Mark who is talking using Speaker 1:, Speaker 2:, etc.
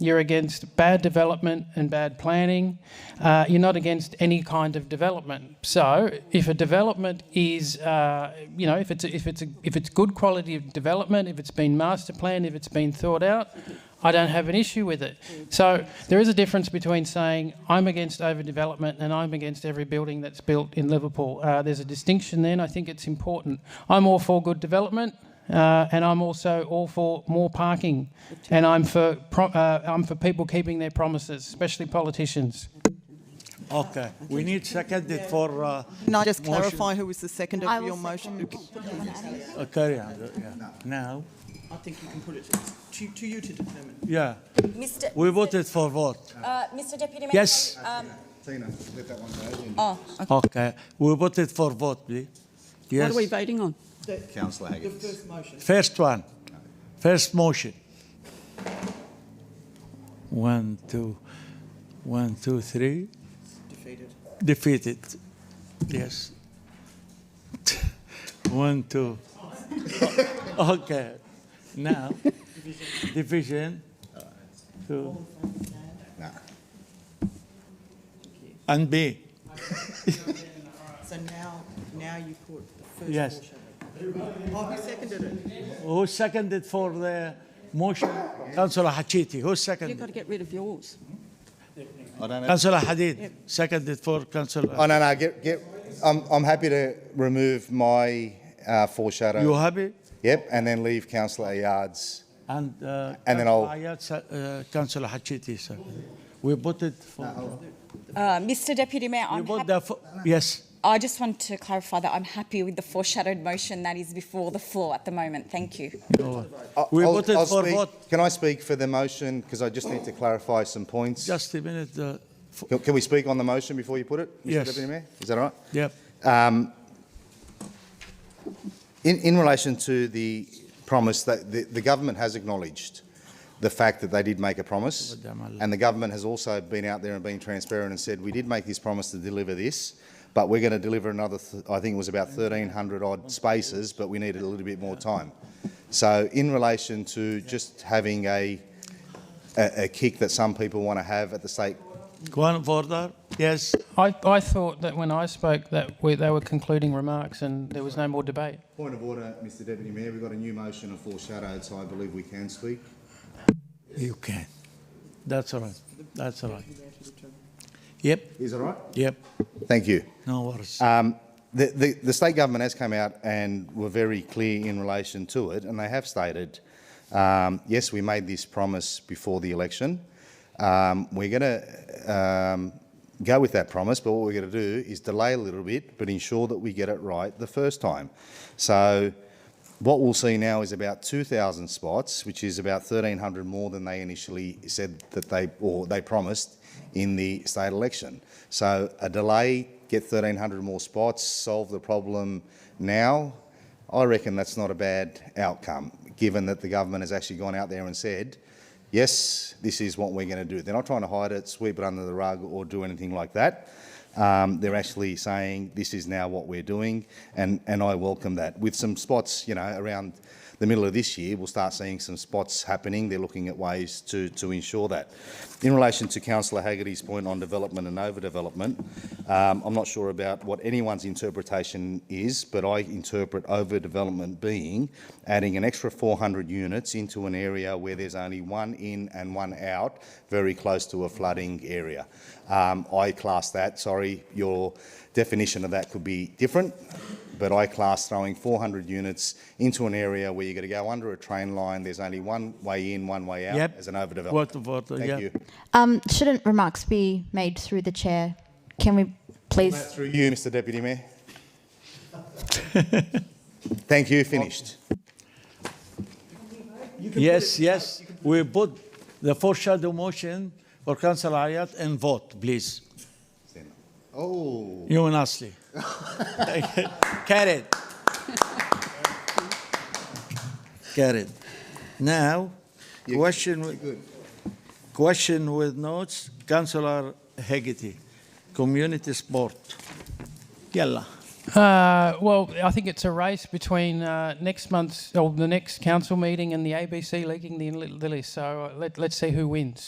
Speaker 1: You're against bad development and bad planning. Uh, you're not against any kind of development. So if a development is, uh, you know, if it's a, if it's a, if it's good quality of development, if it's been master planned, if it's been thought out, I don't have an issue with it. So there is a difference between saying I'm against overdevelopment and I'm against every building that's built in Liverpool. Uh, there's a distinction there, and I think it's important. I'm all for good development, uh, and I'm also all for more parking, and I'm for pro- uh, I'm for people keeping their promises, especially politicians.
Speaker 2: Okay, we need seconded for, uh,
Speaker 3: Can I just
Speaker 2: Motion.
Speaker 3: clarify who was the second
Speaker 4: I
Speaker 3: of
Speaker 4: will
Speaker 3: your motion?
Speaker 2: uh, carry on, uh, yeah, now,
Speaker 5: I think you can put it to, to you to determine.
Speaker 2: yeah.
Speaker 6: Mr.
Speaker 2: We voted for what?
Speaker 6: Uh, Mr. Deputy Mayor.
Speaker 2: Yes.
Speaker 6: Um,
Speaker 7: Tina, let that one go.
Speaker 6: oh, okay.
Speaker 2: Okay, we voted for what, please?
Speaker 8: What are we
Speaker 2: Yes,
Speaker 8: voting on?
Speaker 7: Councillor
Speaker 5: The
Speaker 7: Higgins.
Speaker 5: first motion.
Speaker 2: first one, first motion. One, two, one, two, three,
Speaker 5: Defeated.
Speaker 2: defeated, yes. One, two. Okay, now, division, two.
Speaker 7: Nah.
Speaker 2: And B,
Speaker 5: So now, now you put the first
Speaker 2: Yes.
Speaker 5: motion. Oh, who seconded it?
Speaker 2: who seconded for the motion? Councillor Hachiti,
Speaker 8: You've
Speaker 2: who
Speaker 8: got
Speaker 2: seconded?
Speaker 8: to get rid of yours.
Speaker 7: I don't know.
Speaker 2: Councillor Hadid, seconded for
Speaker 7: Oh,
Speaker 2: Councillor.
Speaker 7: no, no, get, get, I'm, I'm happy to remove my uh, foreshadow.
Speaker 2: You happy?
Speaker 7: Yep, and then leave Councillor Ayad's.
Speaker 2: And uh,
Speaker 7: And then I'll-
Speaker 2: Ayad se- uh, Councillor Hachiti, sir. We voted for,
Speaker 6: Uh, Mr. Deputy Mayor,
Speaker 2: we
Speaker 6: I'm
Speaker 2: voted
Speaker 6: happy,
Speaker 2: the, fo- yes,
Speaker 6: I just want to clarify that I'm happy with the foreshadowed motion that is before the floor at the moment. Thank you.
Speaker 7: I-
Speaker 2: We
Speaker 7: Uh, I'll-
Speaker 2: voted
Speaker 7: I'll
Speaker 2: for
Speaker 7: speak-
Speaker 2: what?
Speaker 7: Can I speak for the motion? Because I just need to clarify some points.
Speaker 2: just a minute, uh, f-
Speaker 7: Can, can we speak on the motion before you put it, Mr.
Speaker 2: Yes.
Speaker 7: Deputy Mayor? Is that all right?
Speaker 2: yep.
Speaker 7: In, in relation to the promise that the, the government has acknowledged the fact that they did make a promise, and the government has also been out there and been transparent and said we did make this promise to deliver this, but we're going to deliver another. Th- I think it was about 1,300 odd spaces, but we needed a little bit more time. So in relation to just having a a, a kick that some people want to have at the state
Speaker 2: One of order, yes.
Speaker 1: I, I thought that when I spoke that we, they were concluding remarks and there was no more debate.
Speaker 7: Point of order, Mr Deputy Mayor, we've got a new motion of foreshadowed, so I believe we can speak.
Speaker 2: You can. That's all right, that's all right. Yep,
Speaker 7: Is that right?
Speaker 2: yep,
Speaker 7: Thank you.
Speaker 2: no worries.
Speaker 7: Um, the, the, the state government has come out and were very clear in relation to it, and they have stated, um, yes, we made this promise before the election. Um, we're going to um, go with that promise, but what we're going to do is delay a little bit, but ensure that we get it right the first time. So what we'll see now is about 2,000 spots, which is about 1,300 more than they initially said that they or they promised in the state election. So a delay, get 1,300 more spots, solve the problem now. I reckon that's not a bad outcome, given that the government has actually gone out there and said, yes, this is what we're going to do. They're not trying to hide it, sweep it under the rug, or do anything like that. Um, they're actually saying this is now what we're doing, and, and I welcome that. With some spots, you know, around the middle of this year, we'll start seeing some spots happening. They're looking at ways to, to ensure that. In relation to Councillor Haggerty's point on development and overdevelopment, um, I'm not sure about what anyone's interpretation is, but I interpret overdevelopment being adding an extra 400 units into an area where there's only one in and one out, very close to a flooding area. Um, I class that, sorry, your definition of that could be different, but I class throwing 400 units into an area where you're going to go under a train line, there's only one way in, one way out
Speaker 2: Yep.
Speaker 7: as an overdevelopment.
Speaker 2: Word of order,
Speaker 7: Thank
Speaker 2: yeah.
Speaker 7: you.
Speaker 4: Um, shouldn't remarks be made through the chair? Can we please?
Speaker 7: Through you, Mr Deputy Mayor. Thank you, finished.
Speaker 2: Yes, yes, we put the foreshadow motion for Councillor Ayat and vote, please.
Speaker 7: Oh.
Speaker 2: You and Ashley. Carried. Carried. Now, question with, question with notes, Councillor Hegarty, community sport. Yalla.
Speaker 1: Uh, well, I think it's a race between uh, next month's or the next council meeting and the ABC leaking the, the list. So uh, let, let's see who wins.